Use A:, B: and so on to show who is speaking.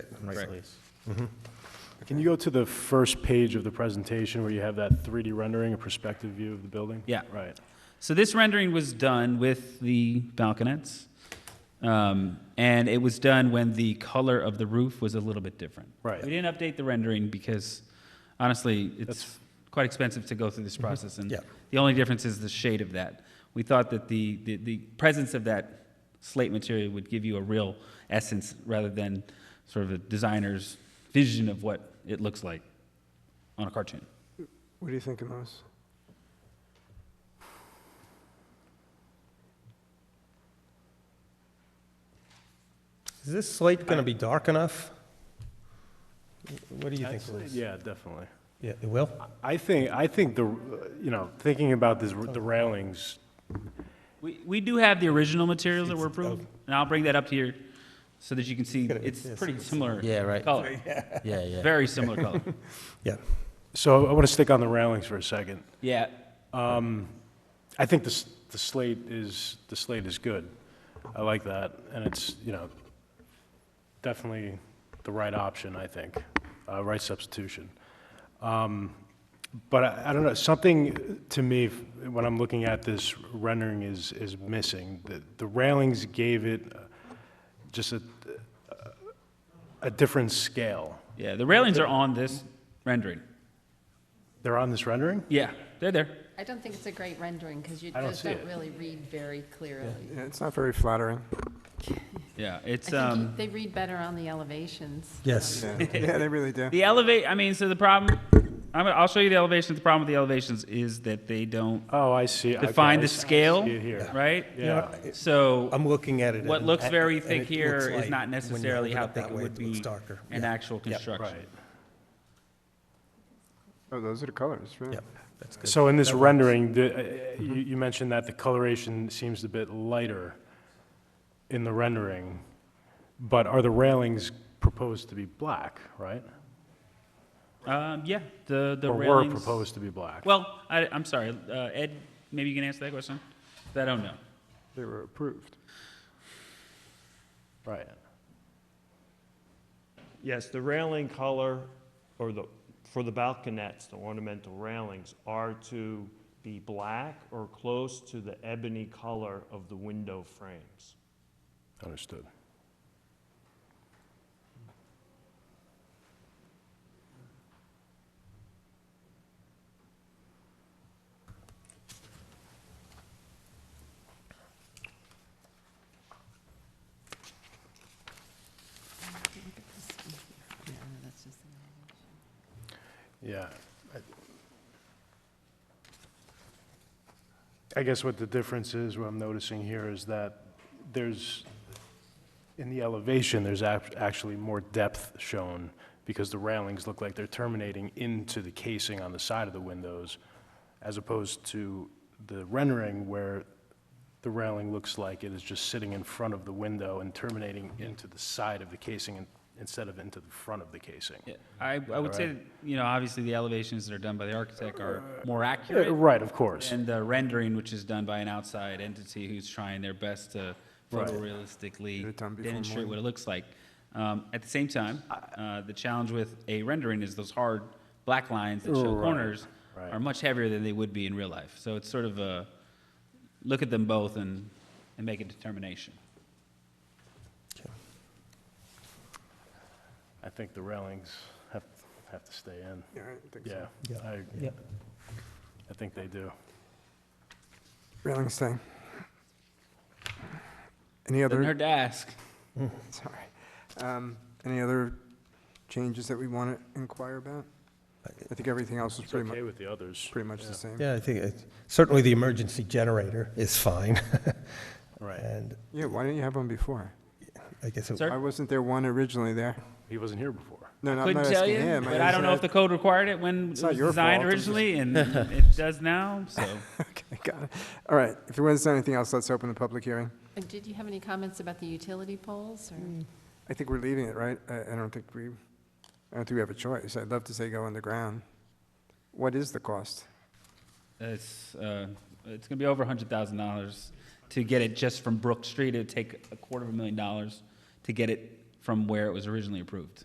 A: Right.
B: Can you go to the first page of the presentation where you have that 3D rendering, a perspective view of the building?
C: Yeah.
B: Right.
C: So this rendering was done with the balconets, um, and it was done when the color of the roof was a little bit different.
B: Right.
C: We didn't update the rendering because, honestly, it's
B: That's-
C: quite expensive to go through this process, and
A: Yeah.
C: the only difference is the shade of that. We thought that the, the, the presence of that slate material would give you a real essence rather than sort of a designer's vision of what it looks like on a cartoon.
D: What do you think, Amos?
A: Is this slate going to be dark enough? What do you think,
B: That's-
A: Louise?
B: Yeah, definitely.
A: Yeah, it will?
B: I think, I think the, uh, you know, thinking about this, the railings,
C: We, we do have the original materials that were
A: It's- it's-
C: approved, and I'll bring that up here so that you can see,
A: gotta be-
C: it's
A: yes,
C: pretty
A: it's-
C: similar.
E: Yeah, right.
C: Color,
E: Yeah, yeah.
C: very similar color.
A: Yeah.
B: so I want to stick on the railings for a second.
C: Yeah,
B: Um, I think the, s- the slate is, the slate is good. I like that, and it's, you know, definitely the right option, I think, uh, right substitution. Um, But I, I don't know, something to me, f- when I'm looking at this rendering is, is missing. The, the railings gave it uh, just a, a different scale.
C: yeah, the railings are on this rendering.
B: They're on this rendering?
C: Yeah, they're there.
F: I don't think it's a great rendering, because you
B: I don't
F: just
B: see
F: don't
B: it.
F: really read very clearly.
D: Yeah, it's not very flattering.
C: Yeah,
F: I
C: it's,
F: think you-
C: um,
F: they read better on the elevations.
A: Yes.
D: Yeah, yeah they really do.
C: the elevate, I mean, so the problem, I'm, gonna- I'll show you the elevations. The problem with the elevations is that they don't
B: Oh, I see. Okay,
C: define
B: I
C: the
B: see- I
C: scale,
B: see it here.
C: right?
A: You know,
B: Yeah.
A: it-
C: So
A: I'm looking at it.
C: what
A: and-
C: looks very
A: and
C: thick
A: it
C: here
A: looks
C: is
A: like
C: not
A: when you
C: necessarily
A: hold
C: how
A: up that
C: thick it
A: way,
C: would
A: looks
C: be
A: darker.
C: an
A: Yeah.
C: actual construction.
B: Right.
D: Oh, those are the colors, right?
A: Yeah, that's good.
B: So in this
A: That works.
B: rendering, the, uh, you, you mentioned that the coloration seems a bit lighter in the rendering, but are the railings proposed to be black, right?
C: Um, yeah, the, the
B: Or
C: railings.
B: were proposed to be black?
C: Well, I, I'm sorry, uh, Ed, maybe you can answer that question? I don't know.
D: They were approved.
B: Right.
G: Yes, the railing color, or the, for the balconets, the ornamental railings, are to be black or close to the ebony color of the window frames.
B: Understood.
F: Yeah, no, that's just the-
B: Yeah. I guess what the difference is, what I'm noticing here is that there's, in the elevation, there's ac- actually more depth shown because the railings look like they're terminating into the casing on the side of the windows as opposed to the rendering where the railing looks like it is just sitting in front of the window and terminating into the side of the casing in- instead of into the front of the casing.
C: Yeah, I, I would say, that, you know, obviously the elevations that are done by the architect are more
B: Uh,
C: accurate
B: Right, of course.
C: than the rendering, which is done by an outside entity who's trying their best to
B: Right.
C: photorealistically
D: Get it done before
C: demonstrate
D: morning.
C: what it looks like. Um, at the same time, uh, the challenge with a rendering is those hard black lines that show
B: Right,
C: corners
B: right.
C: are much heavier than they would be in real life. So it's sort of a, look at them both and, and make a determination.
B: I think the railings have, have to stay in.
D: Yeah, I think so.
B: Yeah,
A: Yeah.
B: I,
A: Yep.
B: I think they do.
D: Railing thing. Any
C: Doesn't
D: other,
C: hurt to ask.
D: sorry, um, any other changes that we want to inquire about? I think everything else is
B: It's
D: pretty much,
B: okay with the others.
D: pretty much
B: Yeah,
D: the same.
A: Yeah, I think it- certainly the emergency generator is fine.
B: Right.
A: And
D: Yeah, why didn't you have one before?
A: I guess it
C: Sir?
D: Why wasn't there one originally there?
B: He wasn't here before.
D: No, no, I'm
C: Couldn't
D: not
C: tell
D: asking
C: you,
D: him.
C: but I don't know if the
D: just-
C: code required it when
D: It's
C: it
D: not
C: was
D: your
C: designed
D: fault, I'm just-
C: originally, and it does now, so.
D: Okay, got it. All right, if there wasn't anything else, let's open the public hearing.
F: And did you have any comments about the utility poles, or?
D: I think we're leaving it, right? I, I don't think we, I don't think we have a choice. I'd love to say go underground. What is the cost?
C: It's, uh, it's gonna be over a hundred thousand dollars to get it just from Brook Street. It'd take a quarter of a million dollars to get it from where it was originally approved.